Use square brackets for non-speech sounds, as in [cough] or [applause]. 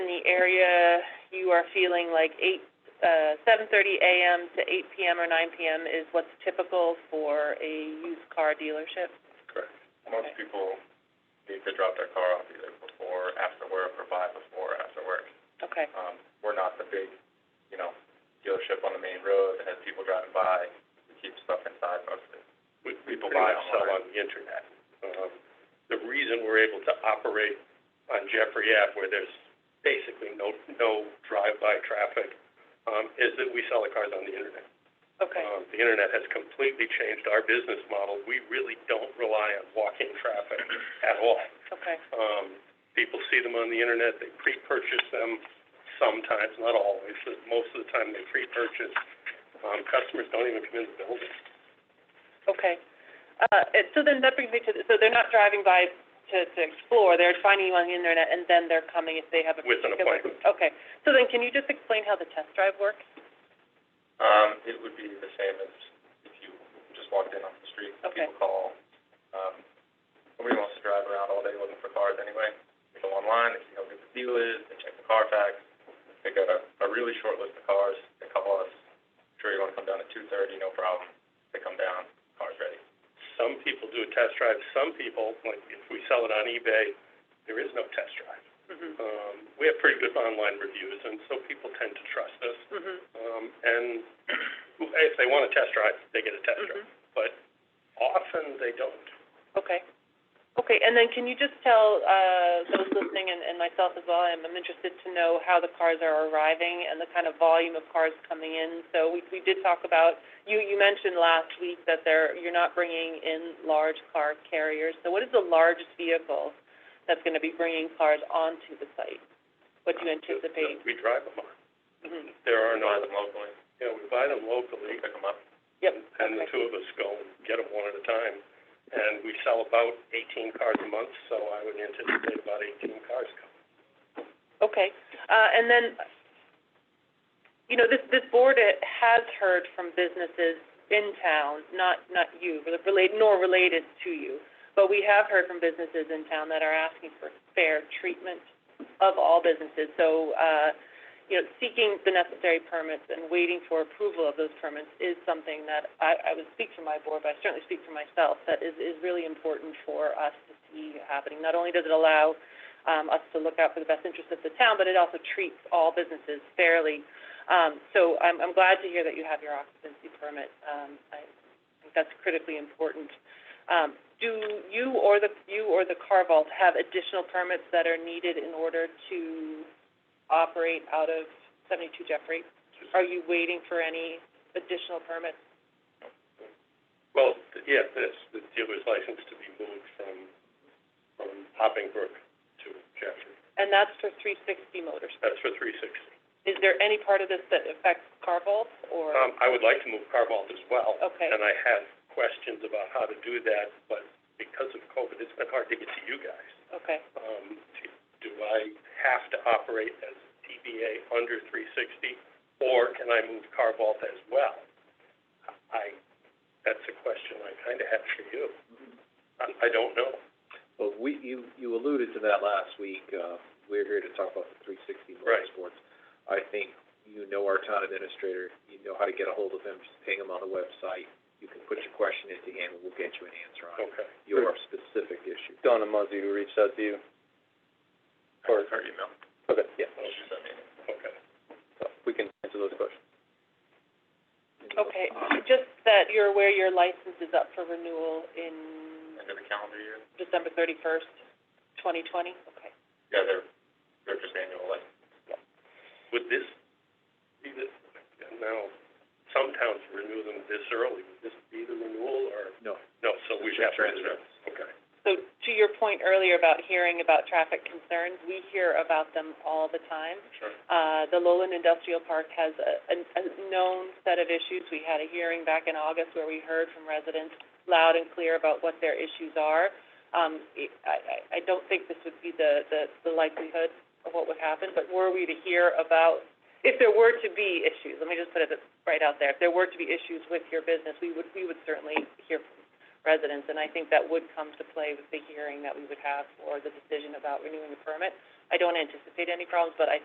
area you are feeling like eight, uh, seven thirty AM to eight PM or nine PM is what's typical for a used car dealership? Correct. Most Okay. people need to drop their car off either before, after work, or by before, after work. Okay, Um, we're not the big, you know, dealership on the main road that has people driving by. We keep stuff inside mostly. we, we People pretty buy much sell online. on the internet. Um, the reason we're able to operate on Jeffrey Ave where there's basically no, no drive-by traffic, um, is that we sell the cars on the internet. okay, Um, the internet has completely changed our business model. We really don't rely on walk-in traffic at all. okay, Um, people see them on the internet, they pre-purchase them sometimes, not always, but most of the time they pre-purchase. Um, customers don't even come in the building. okay. Uh, it, so then that brings me to, the- so they're not driving by to, to explore, they're finding you on the internet and then they're coming if they have a With an particular- appointment. Okay, so then can you just explain how the test drive works? Um, it would be the same as if you just walked in off the street. Okay. People call, um, nobody wants to drive around all day looking for cars anyway. They go online, they see how good the deal is, they check the Carfax, they got a, a really short list of cars, they call us, sure you wanna come down at two thirty, no problem. They come down, car's ready. Some people do a test drive, some people, like if we sell it on eBay, there is no test drive. Mm-hmm, Um, we have pretty good online reviews, and so people tend to trust us. mm-hmm, Um, and [clears throat] if they want a test drive, they get a test mm-hmm. drive, but often they don't. Okay. Okay, and then can you just tell, uh, those listening and, and myself as well, I'm, I'm interested to know how the cars are arriving and the kind of volume of cars coming in. So we, we did talk about, you, you mentioned last week that there, you're not bringing in large car carriers. So what is the largest vehicle that's gonna be bringing cars onto the site? What do you anticipate? We drive them on. Mhm. There are Buy no, them locally, you know, we buy them we locally, pick them up. Yep, and the okay. two of us go and get them one at a time. And we sell about eighteen cars a month, so I would anticipate about eighteen cars coming. Okay, uh, and then, you know, this, this board uh, has heard from businesses in town, not, not you, rela- relate, nor related to you, but we have heard from businesses in town that are asking for fair treatment of all businesses. So, uh, you know, seeking the necessary permits and waiting for approval of those permits is something that I, I would speak for my board, but I certainly speak for myself, that is, is really important for us to see happening. Not only does it allow um, us to look out for the best interest of the town, but it also treats all businesses fairly. Um, so I'm, I'm glad to hear that you have your occupancy permit. Um, I think that's critically important. Um, do you or the, you or the Car Vault have additional permits that are needed in order to operate out of seventy-two Jeffrey? Are you waiting for any additional permits? Well, th- yeah, this, the dealer's license to be moved from, from Hoppingbrook to Jeffrey. And that's for three sixty Motorsports. That's for three sixty. Is there any part of this that affects Car Vault or? Um, I would like to move Carvalt as well. Okay. And I have questions about how to do that, but because of COVID, it's been hard to get to you guys. Okay, Um, do- do I have to operate as DBA under three sixty, or can I move Carvalt as well? I, that's a question I kinda have for you. I, I don't know. Well, we, you, you alluded to that last week, uh, we're here to talk about the three sixty Right. motorsports. I think you know our town administrator, you know how to get a hold of him, just ping him on the website. You can put your question into him, and we'll get you an answer on Okay. your specific issue. Donna Muzzy who reached out to you. Or, Her email, okay, yeah, she sent me an email. Okay. so we can answer those questions. okay, just that you're aware your license is up for renewal in End of the calendar year. December thirty-first, twenty twenty, okay. Yeah, they're, they're just annual license. Would this be the, now, some towns renew them this early, would this be the renewal, or, No, no, so we It's have to transfer. renew? Okay. So to your point earlier about hearing about traffic concerns, we hear about them all the time. Sure. Uh, the Lowland Industrial Park has a, a, a known set of issues. We had a hearing back in August where we heard from residents loud and clear about what their issues are. Um, it- I, I, I don't think this would be the, the, the likelihood of what would happen, but were we to hear about, if there were to be issues, let me just put it right out there, if there were to be issues with your business, we would, we would certainly hear from residents, and I think that would come to play with the hearing that we would have for the decision about renewing the permit. I don't anticipate any problems, but I